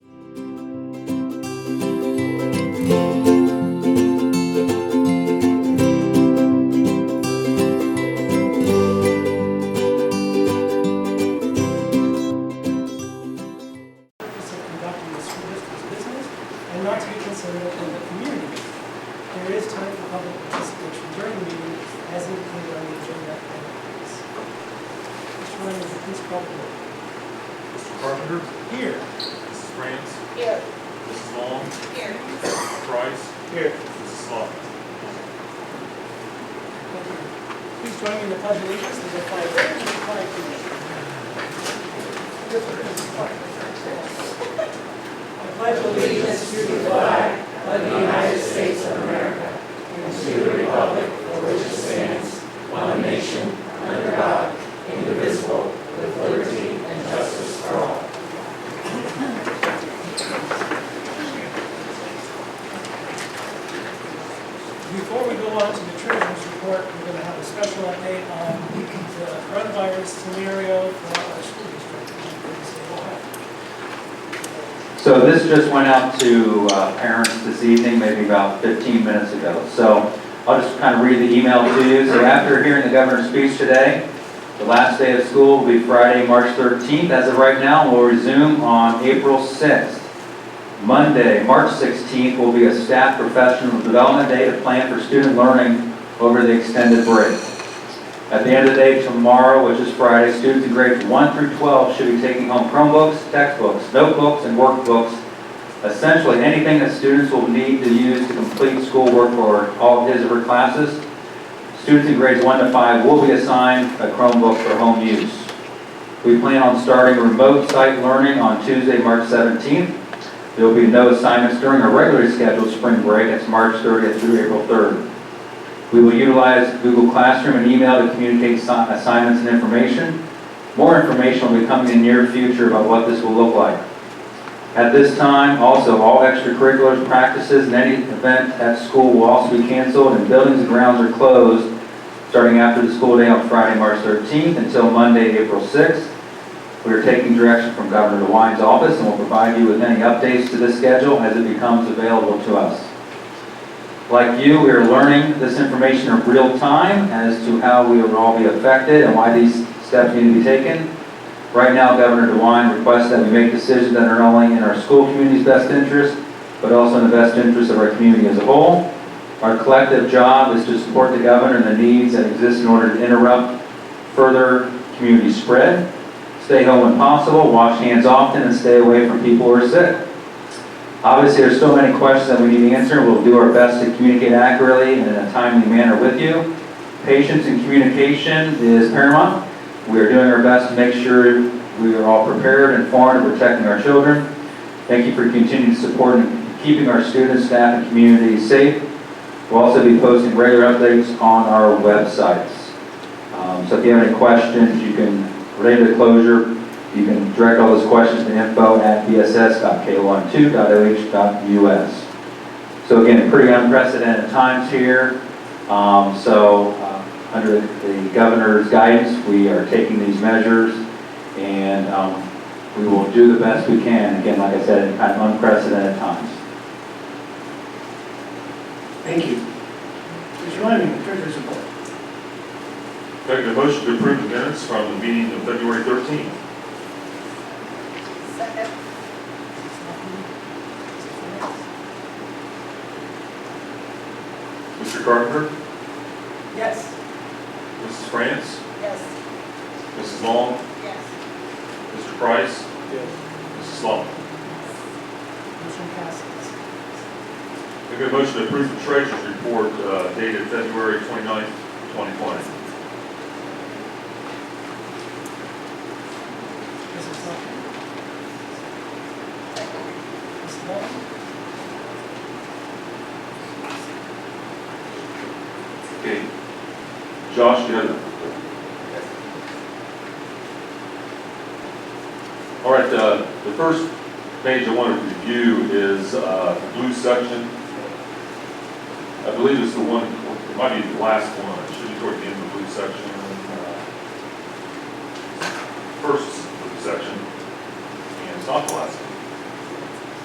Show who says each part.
Speaker 1: district's business and not to be considered a public community meeting. There is time for public participation during the meeting as indicated on the agenda items. Mr. Reynolds, please call the roll.
Speaker 2: Mr. Carpenter,
Speaker 1: Here.
Speaker 2: Mrs. France,
Speaker 3: Here.
Speaker 2: Mrs. Long,
Speaker 3: Here.
Speaker 2: Mrs. Price,
Speaker 1: Here.
Speaker 2: Mrs. Slough.
Speaker 1: Please join me in the pledge of allegiance to the flag of the flag of the I pledge allegiance to the flag of the United States of America and to the republic for which it stands, one nation, under God, indivisible, with liberty and justice for all. Before we go on to the treasurer's report, we're going to have a special update on the coronavirus scenario for our school district.
Speaker 4: So this just went out to uh, parents this evening, maybe about 15 minutes ago. So I'll just kind of read the email to you. So after hearing the governor's speech today, the last day of school will be Friday, March 13th. As of right now, we'll resume on April 6th. Monday, March 16th will be a staff professional development day to plan for student learning over the extended break. At the end of the day tomorrow, which is Friday, students in grades 1 through 12 should be taking home Chromebooks, textbooks, notebooks, and workbooks, essentially anything that students will need to use to complete schoolwork for all of his or her classes. Students in grades 1 to 5 will be assigned a Chromebook for home use. We plan on starting remote site learning on Tuesday, March 17th. There will be no assignments during our regularly scheduled spring break, that's March 30th through April 3rd. We will utilize Google Classroom and email to communicate assi- assignments and information. More information will be coming in the near future about what this will look like. At this time, also, all extracurriculars, practices, and any event at school will also be canceled, and buildings and grounds are closed starting after the school day on Friday, March 13th, until Monday, April 6th. We are taking direction from Governor DeWine's office, and will provide you with any updates to this schedule as it becomes available to us. Like you, we are learning this information in real time as to how we will all be affected and why these steps need to be taken. Right now, Governor DeWine requests that we make decisions that are not only in our school community's best interest, but also in the best interest of our community as a whole. Our collective job is to support the governor and the needs that exist in order to interrupt further community spread. Stay home when possible, wash hands often, and stay away from people who are sick. Obviously, there's so many questions that we need to answer. We'll do our best to communicate accurately and in a timely manner with you. Patience and communication is paramount. We are doing our best to make sure we are all prepared, informed, and protecting our children. Thank you for continued support and keeping our students, staff, and community safe. We'll also be posting regular updates on our websites. Um, So if you have any questions, you can, related to closure, you can direct all those questions to info@bss.k12.oh.us. So again, pretty unprecedented times here. Um, So uh, under the governor's guidance, we are taking these measures, and um, we will do the best we can, again, like I said, in kind of unprecedented times.
Speaker 5: Thank you. Mr. Lyman, Treasurer's Report.
Speaker 2: Make a motion to approve the minutes from the meeting of February 13th.
Speaker 3: Second.
Speaker 2: Mr. Carpenter,
Speaker 1: Yes.
Speaker 2: Mrs. France,
Speaker 3: Yes.
Speaker 2: Mrs. Long,
Speaker 3: Yes.
Speaker 2: Mr. Price, Mrs. Slough.
Speaker 1: Motion passes.
Speaker 2: Make a motion to approve the treasurer's report uh, dated February 29th, 2020.
Speaker 1: Mrs. Sutton? Mrs. Walton?
Speaker 2: Okay. Josh, you have it? All right, uh, the first page I want to review is uh, the blue section. I believe it's the one, it might be the last one, it should be toward the end of the blue section. uh, First blue section, and it's not the last one.